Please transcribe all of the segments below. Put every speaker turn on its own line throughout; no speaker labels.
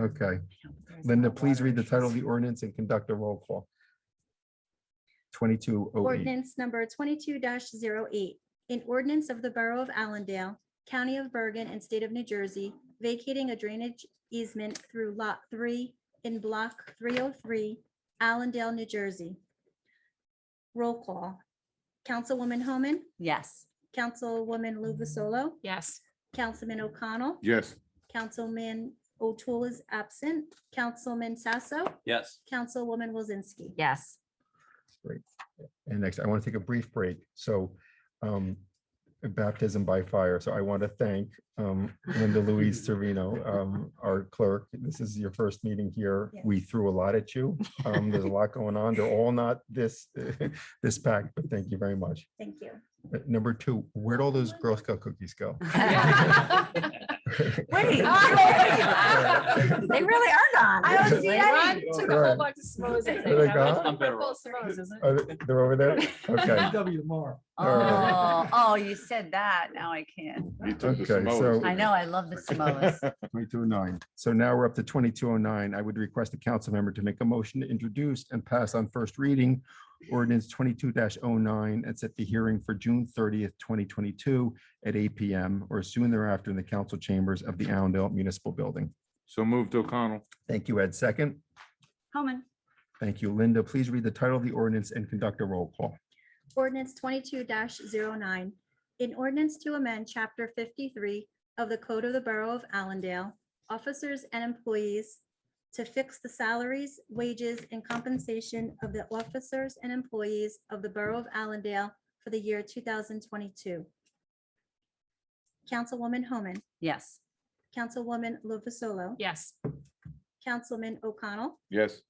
Okay. Linda, please read the title of the ordinance and conduct a roll call. Twenty-two oh eight.
Ordinance number twenty-two 8 An ordinance of the Borough of Allendale, County of Bergen and State of New Jersey, vacating a drainage easement through Lot Three in Block three oh three, Allendale, New Jersey. Roll call. Councilwoman Homan,
Yes.
Councilwoman Luvasolo,
Yes.
Councilman O'Connell,
Yes.
Councilman O'Toole is absent, Councilman Sasso,
Yes.
Councilwoman Wozinski.
Yes.
And next, I want to take a brief break. So um, baptism by fire. So I want to thank um, Linda Louise Servino, um, our clerk. This is your first meeting here.
Yes.
We threw a lot at you. Um, There's a lot going on. They're all not this, this packed, but thank you very much.
Thank you.
Uh, Number two, where'd all those Girl Scout cookies go?
Wait.
They really are gone.
I don't see
Ron
any.
Took a whole
Right.
bunch of smokes.
Are they gone?
I'm better off.
Are they- They're over there? Okay.
W tomorrow.
Oh, oh, you said that. Now I can.
You took the
Okay,
Samoas,
so-
didn't
I
you?
know, I love the Samoas.
Twenty-two oh nine. So now we're up to twenty-two oh nine. I would request the council member to make a motion to introduce and pass on first reading ordinance twenty-two 9 and set the hearing for June thirtieth, twenty twenty-two at eight P M or soon thereafter in the council chambers of the Allendale Municipal Building.
So moved O'Connell.
Thank you, Ed. Second.
Homan.
Thank you, Linda. Please read the title of the ordinance and conduct a roll call.
Ordinance twenty-two 9 In ordinance to amend chapter fifty-three of the Code of the Borough of Allendale, officers and employees to fix the salaries, wages, and compensation of the officers and employees of the Borough of Allendale for the year two thousand twenty-two. Councilwoman Homan,
Yes.
Councilwoman Lovasolo,
Yes.
Councilman O'Connell,
Yes.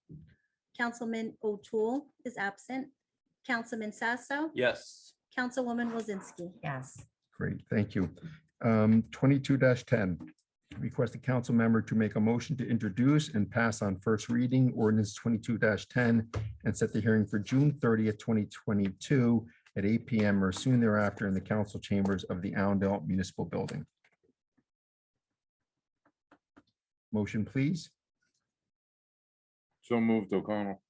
Councilman O'Toole is absent, Councilman Sasso,
Yes.
Councilwoman Wozinski.
Yes.
Great, thank you. Um, Twenty-two ten, request the council member to make a motion to introduce and pass on first reading ordinance twenty-two ten and set the hearing for June thirtieth, twenty twenty-two at eight P M or soon thereafter in the council chambers of the Allendale Municipal Building. Motion, please.
So moved O'Connell.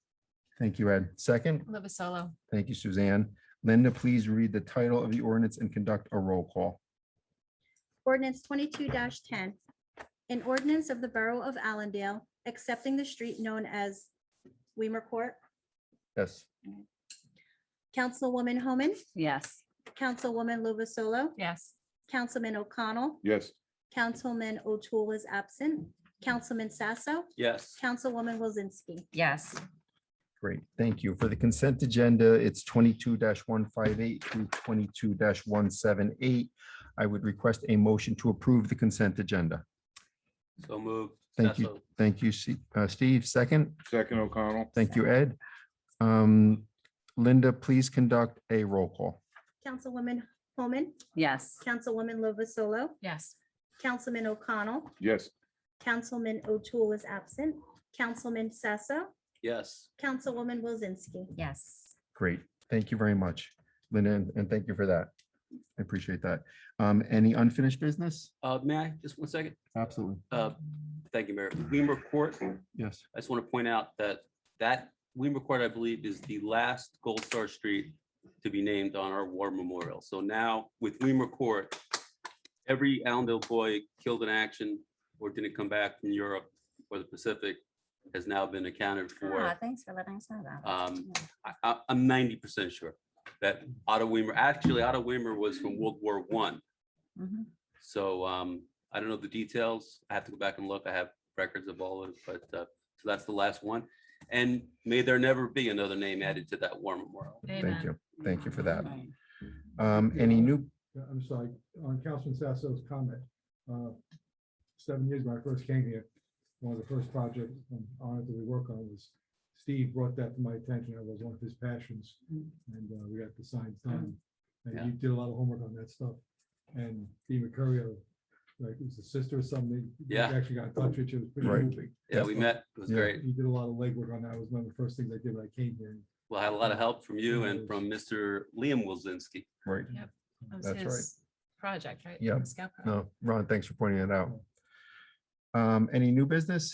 Thank you, Ed. Second,
Live a solo.
thank you, Suzanne. Linda, please read the title of the ordinance and conduct a roll call.
Ordinance twenty-two ten. An ordinance of the Borough of Allendale accepting the street known as Weimer Court.
Yes.
Councilwoman Homan,
Yes.
Councilwoman Luvasolo,
Yes.
Councilman O'Connell,
Yes.
Councilman O'Toole is absent, Councilman Sasso,
Yes.
Councilwoman Wozinski.
Yes.
Great, thank you. For the consent agenda, it's twenty-two one five eight through twenty-two one seven eight. I would request a motion to approve the consent agenda.
So moved.
Thank you.
Sasso.
Thank you, Se- uh, Steve. Second,
Second O'Connell.
thank you, Ed. Um, Linda, please conduct a roll call.
Councilwoman Homan,
Yes.
Councilwoman Luvasolo,
Yes.
Councilman O'Connell,
Yes.
Councilman O'Toole is absent, Councilman Sasso,
Yes.
Councilwoman Wozinski.
Yes.
Great, thank you very much, Linda, and and thank you for that. I appreciate that. Um, Any unfinished business?
Uh, may I, just one second?
Absolutely.
Uh, thank you, Mayor. Weimer Court,
Yes.
I just want to point out that that Weimer Court, I believe, is the last Gold Star Street to be named on our war memorial. So now with Weimer Court, every Allendale boy killed in action or didn't come back from Europe or the Pacific has now been accounted for.
Ah, Thanks for letting us know that.
Um, I, I, I'm ninety percent sure that Otto Weimer, actually Otto Weimer was from World War One.
Mhm.
So, um, I don't know the details. I have to go back and look. I have records of all of it, but, uh, so that's the last one. And may there never be another name added to that war memorial.
Amen.
Thank you, thank you for that. Um, Any new,
Yeah, I'm sorry, on Councilman Sasso's comment, uh, seven years when I first came here, one of the first projects I'm honored that we work on was Steve brought that to my attention. It was one of his passions. And uh, we got the signs done. And
Mm. Yeah.
you did a lot of homework on that stuff. And Steve Mercurio, like, it was a sister or something. he
Yeah.
Actually got in touch with you. It was pretty
Right.
moving.
Yeah, we met. It was
Yeah.
great.
You did a lot of legwork on that. It was one of the first things I did when I came here.
Well, I had a lot of help from you and from Mr. Liam Wilzinski.
right,
That was
That's right.
his Project, right?
Yeah.
The scout project.
no, Ron, thanks for pointing that out. Um, Any new business?